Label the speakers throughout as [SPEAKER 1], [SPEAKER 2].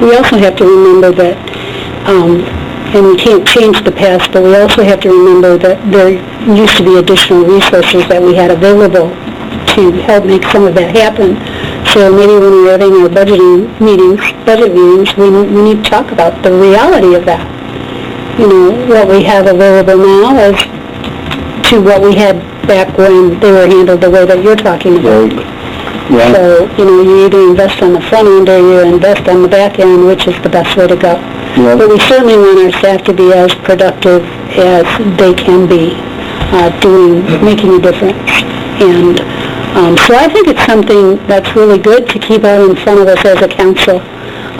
[SPEAKER 1] We also have to remember that, um, and we can't change the past, but we also have to remember that there used to be additional resources that we had available to help make some of that happen. So maybe when we're having our budgeting meetings, budget meetings, we we need to talk about the reality of that. You know, what we have available now as to what we had back when they were handled the way that you're talking about.
[SPEAKER 2] Right, right,
[SPEAKER 1] So, you know, you either invest on the front end or you invest on the back end, which is the best way to go.
[SPEAKER 2] Yeah.
[SPEAKER 1] But we certainly want our staff to be as productive as they can be, uh, doing, making a difference. And, um, so I think it's something that's really good to keep out in front of us as a council,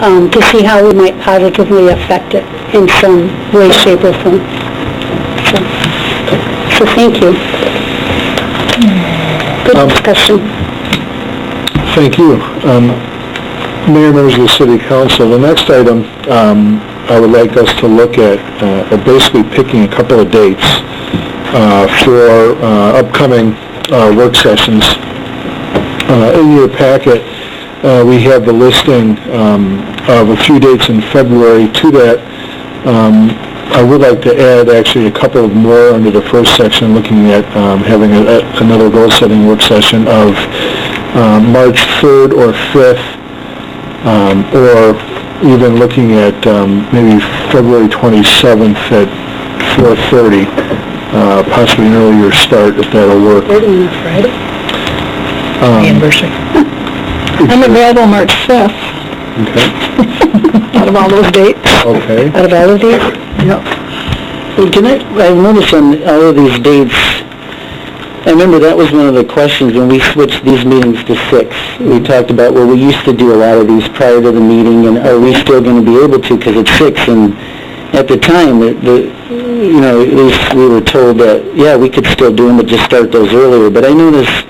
[SPEAKER 1] um, to see how we might positively affect it in some way, shape, or form. So- So, thank you. Good
[SPEAKER 2] Um,
[SPEAKER 1] discussion.
[SPEAKER 2] thank you. Um, Mayor, members of the city council, the next item, um, I would like us to look at, uh, are basically picking a couple of dates, uh, for, uh, upcoming, uh, work sessions. Uh, in your packet, uh, we have the listing, um, of a few dates in February to that, um, I would like to add actually a couple of more under the first section, looking at um, having a- a- another goal-setting work session of um, March 3rd or 5th, um, or even looking at um, maybe February 27th at 4:30, uh, possibly an earlier start if that'll work.
[SPEAKER 1] We're doing a Friday. Um,
[SPEAKER 3] anniversary.
[SPEAKER 1] I'm available March 5th,
[SPEAKER 2] Okay,
[SPEAKER 1] out of all those dates.
[SPEAKER 2] okay.
[SPEAKER 1] Out of all of these? Yep.
[SPEAKER 3] Well, can I, I noticed on all of these dates, I remember that was one of the questions when we switched these meetings to six. We talked about, well, we used to do a lot of these prior to the meeting, and are we still going to be able to, because it's six, and at the time, the- the, you know, at least we were told that, yeah, we could still do them, but just start those earlier, but I noticed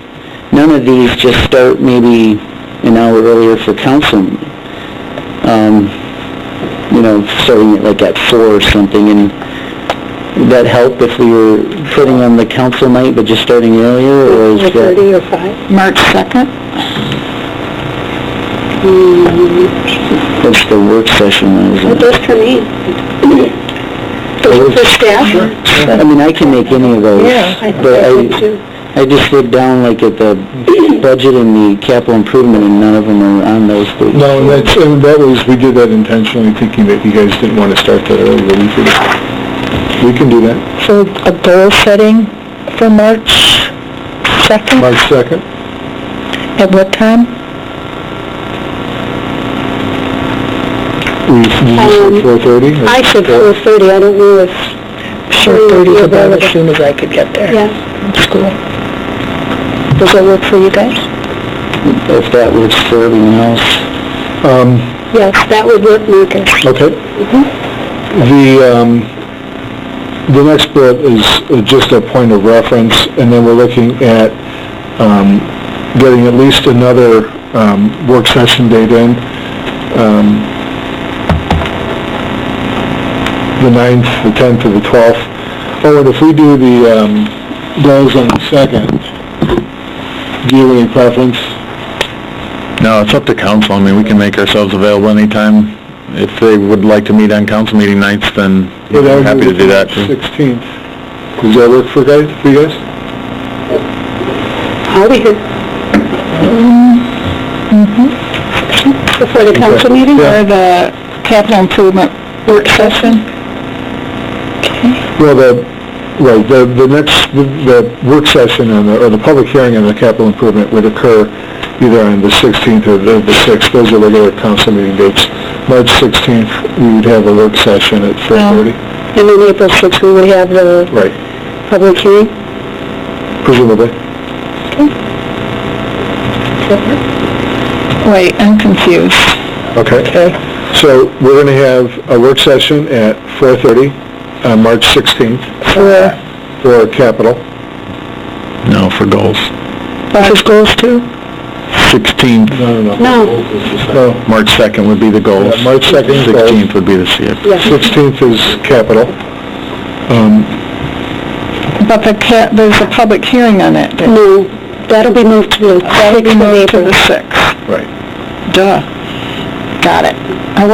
[SPEAKER 3] none of these just start maybe an hour earlier for council. Um, you know, starting at like at four or something, and would that help if we were putting on the council night, but just starting earlier, or is that...
[SPEAKER 1] 30 or 5?
[SPEAKER 3] March 2nd? That's the work session,
[SPEAKER 1] What
[SPEAKER 3] isn't it?
[SPEAKER 1] does for me? The- For staff?
[SPEAKER 3] I mean, I can make any of those.
[SPEAKER 1] I think
[SPEAKER 3] But
[SPEAKER 1] I do
[SPEAKER 3] I,
[SPEAKER 1] too.
[SPEAKER 3] I just looked down like at the budget and the capital improvement, and none of them are on those dates.
[SPEAKER 2] No, and that's, and that was, we did that intentionally, thinking that you guys didn't want to start that early, but we could, we can do that.
[SPEAKER 1] So a goal setting for March 2nd,
[SPEAKER 2] March 2nd?
[SPEAKER 1] at what time?
[SPEAKER 2] We, you
[SPEAKER 1] Um,
[SPEAKER 2] said four thirty?
[SPEAKER 1] I said 4:30, I don't know if... 4:30 is about as soon as I could get there. Yeah. School. Does that work for you guys?
[SPEAKER 3] If that works for everyone else.
[SPEAKER 2] Um,
[SPEAKER 1] Yes, that would work, Marcus.
[SPEAKER 2] okay. The, um, the next bit is just a point of reference, and then we're looking at, um, getting at least another, um, work session date in. Um, the ninth, the tenth, or the twelfth. Oh, and if we do the, um, goals on the second, do you have any preference?
[SPEAKER 4] No, it's up to council. I mean, we can make ourselves available anytime. If they would like to meet on council meeting nights, then
[SPEAKER 2] Yeah, that
[SPEAKER 4] I'm
[SPEAKER 2] would
[SPEAKER 4] happy
[SPEAKER 2] be
[SPEAKER 4] to do that. too.
[SPEAKER 2] Sixteenth. Does that work for guys, for you guys?
[SPEAKER 1] I'll be here. Before Mm-hmm. the council meeting
[SPEAKER 2] Yeah.
[SPEAKER 1] or the capital improvement work session?
[SPEAKER 2] Well, the, right, the, the next, the the work session on the, or the public hearing on the capital improvement would occur either on the sixteenth or the the sixth. Those are regular council meeting dates. March sixteenth, we would have a work session at four thirty.
[SPEAKER 1] And then April 6th, we would have the
[SPEAKER 2] Right,
[SPEAKER 1] public hearing.
[SPEAKER 2] presumably.
[SPEAKER 1] Wait, I'm confused.
[SPEAKER 2] Okay.
[SPEAKER 1] Okay.
[SPEAKER 2] So we're going to have a work session at four thirty on March sixteenth
[SPEAKER 1] For,
[SPEAKER 2] for capital.
[SPEAKER 4] No, for goals.
[SPEAKER 1] for goals too?
[SPEAKER 4] 16th,
[SPEAKER 2] No, no, no.
[SPEAKER 1] No.
[SPEAKER 2] No.
[SPEAKER 4] March 2nd would be the goals.
[SPEAKER 2] Yeah, March 2nd is goals.
[SPEAKER 4] 16th would be the CIP.
[SPEAKER 1] Yeah.
[SPEAKER 2] 16th is capital. Um,
[SPEAKER 5] But the, ca- there's a public hearing on that day.
[SPEAKER 1] No, that'll be moved to the
[SPEAKER 5] That'll be
[SPEAKER 1] 6th of
[SPEAKER 5] moved to
[SPEAKER 1] April.
[SPEAKER 5] the 6th.
[SPEAKER 2] Right.
[SPEAKER 5] Duh. Got it. I